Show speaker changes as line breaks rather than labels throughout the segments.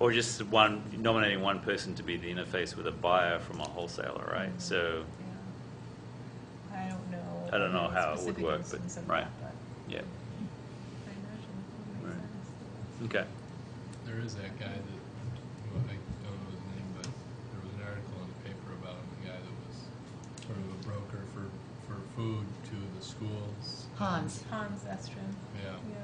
Or just one, nominating one person to be the interface with a buyer from a wholesaler, right?
Mm.
So,
I don't know.
I don't know
the
how it would
specific
work, but-
instance of
right.
that,
yeah,
but I imagine it would
Right.
make sense.
okay.
There is that guy that, well, I don't know his name, but there was an article in the paper about him, a guy that was sort of a broker for, for food to the schools.
Hans.
Hans Estrin,
Yeah.
yeah,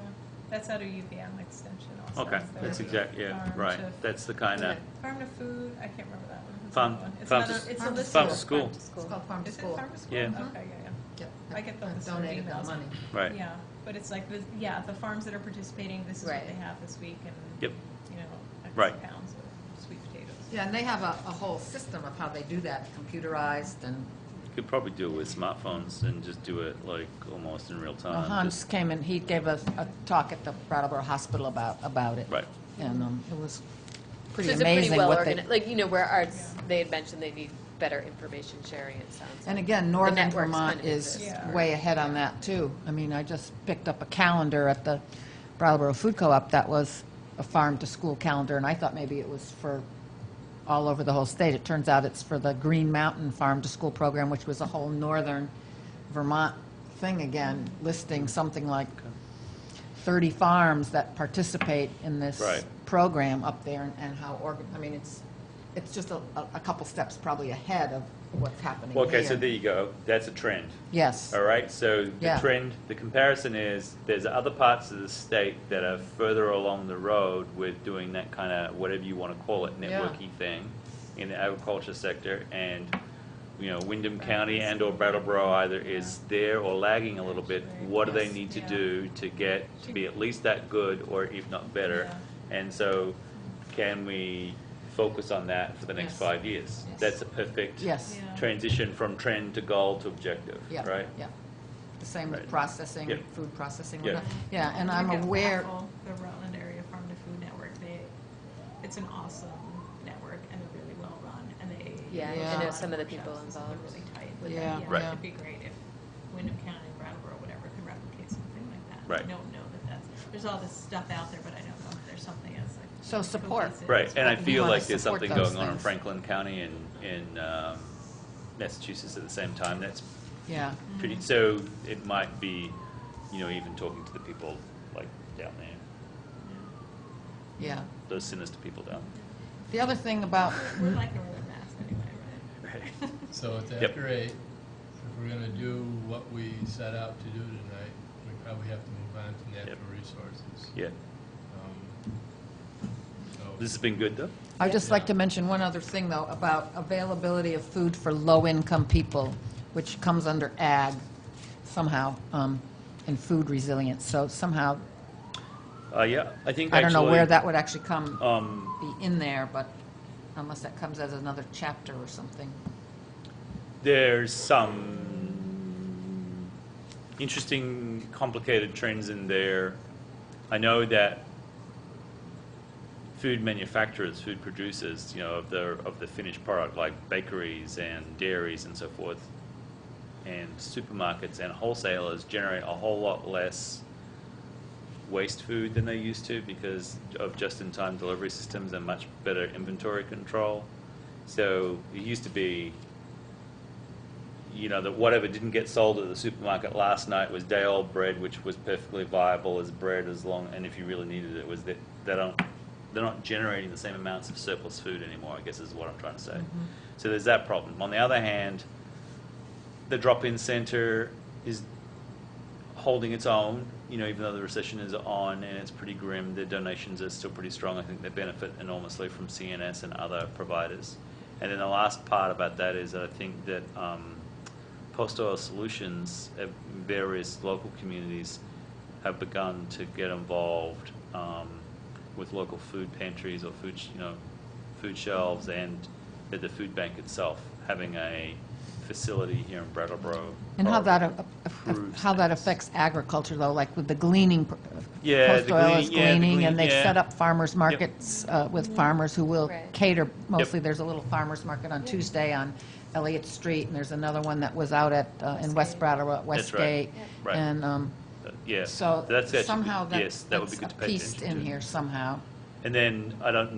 that's out of UVM Extension also.
Okay,
is their
that's exact, yeah,
farm
right.
Um, to-
That's the kind of,
Farm to food, I can't remember that one. Who's
Farm-
that one? It's
farm to
another-
s-
it's a
farm to
list
farm
of-
to school.
Farm to
It's called Farm to
Is it
School.
farm to school?
Yeah.
Okay, yeah,
Yep.
I get those
I've
sort of
Donated that
emails.
money.
yeah.
right,
Yeah, but it's like, the yeah, the farms that are participating, this is what
Right.
they have this week and,
Yep.
you know, X
Right.
pounds of sweet potatoes.
Yeah, and they have a, a whole system of how they do that, computerized and.
You could probably do it with smartphones and just do it like almost in real
Well,
time.
uh, Hans
Uh, Just-
came and he gave a, a talk at the Brattleboro Hospital about, about it.
Right.
And um, it was pretty
So it's a pretty
amazing
well
what they.
organized, like, you know, where arts,
Yeah.
they had mentioned they need better information sharing, it sounds
And
like.
again, Northern
networks
Vermont
kind of
is
exist. Yeah.
way ahead on that too. I mean, I just picked up a calendar at the Brattleboro Food Co-op that was a farm-to-school calendar, and I thought maybe it was for all over the whole state. It turns out it's for the Green Mountain Farm-to-School program, which was a whole Northern Vermont thing again, listing something like 30 farms that participate in this
Right.
program up there and- and how, organ- I mean, it's, it's just a, a- a couple steps probably ahead of what's happening
Well, Okay, so
here.
there you go. That's a trend.
Yes.
All right, so the
Yeah.
trend, the comparison is, there's other parts of the state that are further along the road with doing that kind of, whatever you want to call it,
Yeah.
networky thing in the agriculture sector, and, you know, Wyndham County and/or Brattleboro either is there or lagging a little bit. What do they
Yes.
need to
Yeah.
do to get, to be at least that good, or if not better? And so, can we focus on that for the next
Yes.
five years?
Yes.
That's a perfect
Yes.
Yeah.
transition from trend to goal to objective,
Yeah,
right?
Yeah. The same with
Right.
processing,
Yeah.
food processing.
Yeah.
Yeah, and I'm
Look at
aware,
Raffle, The Rutland Area Farm to Food Network, they, it's an awesome network and they're really well run and they.
Yeah,
I know
run
some of the people
workshops and
involved.
They're really tight with
Yeah,
that.
Right.
It'd be great if Wyndham County, Brattleboro, whatever, could replicate something like that.
Right.
I don't know that that's, there's all this stuff out there, but I don't know if there's something else like.
So support.
cohesive.
Right, and I
We
feel
wanna
like there's
support
something
those
going on in
things.
Franklin County and in um, Massachusetts at the same time. That's
yeah,
pretty, so it might be, you know, even talking to the people like down there,
yeah.
those sinister people down
The other thing about,
We're like Northern Mass anyway, right?
there.
So it's
Yep.
after eight, if we're gonna do what we set out to do tonight, we probably have to move on to natural resources.
Yeah,
Um, So.
this has been good though.
I'd just like to mention one other thing, though, about availability of food for low-income people, which comes under ag somehow, um, and food resilience. So somehow,
Uh, yeah, I think
I don't know where
actually,
that would actually come,
Um,
be in there, but unless that comes as another chapter or something.
there's some interesting, complicated trends in there. I know that food manufacturers, food producers, you know, of the of the finished product, like bakeries and dairies and so forth, and supermarkets and wholesalers generate a whole lot less waste food than they used to because of just-in-time delivery systems and much better inventory control. So it used to be you know, that whatever didn't get sold at the supermarket last night was day old bread, which was perfectly viable as bread as long, and if you really needed it, was that they don't, they're not generating the same amounts of surplus food anymore, I guess is what I'm trying to say. So there's that problem. On the other hand, the drop in center is holding its own, you know, even though the recession is on and it's pretty grim, their donations are still pretty strong. I think they benefit enormously from CNS and other providers. And then the last part about that is that I think that um, Post Oil Solutions at various local communities have begun to get involved um, with local food pantries or food, sh- you know, food shelves and at the food bank itself, having a facility here in Brattleboro.
And how that, a- a-
improves
how that
things.
affects agriculture, though, like with the gleaning, pr- uh,
Yeah,
Post
the
Oil is
glean- yeah, the
gleaning,
glean-
and they've
yeah.
set up farmers markets uh, with farmers who will
Right.
cater, mostly, there's a little farmers market on Tuesday on Elliott Street, and there's another one that was out at, uh, in West
Westgate.
Brattleboro, at
That's right.
Westgate.
Right.
And um,
Uh, Yeah.
so
that's actually good.
somehow that-
Yes, that would be
that's
good
a
to pay
piece
attention
in
to.
here somehow.
And then, I don't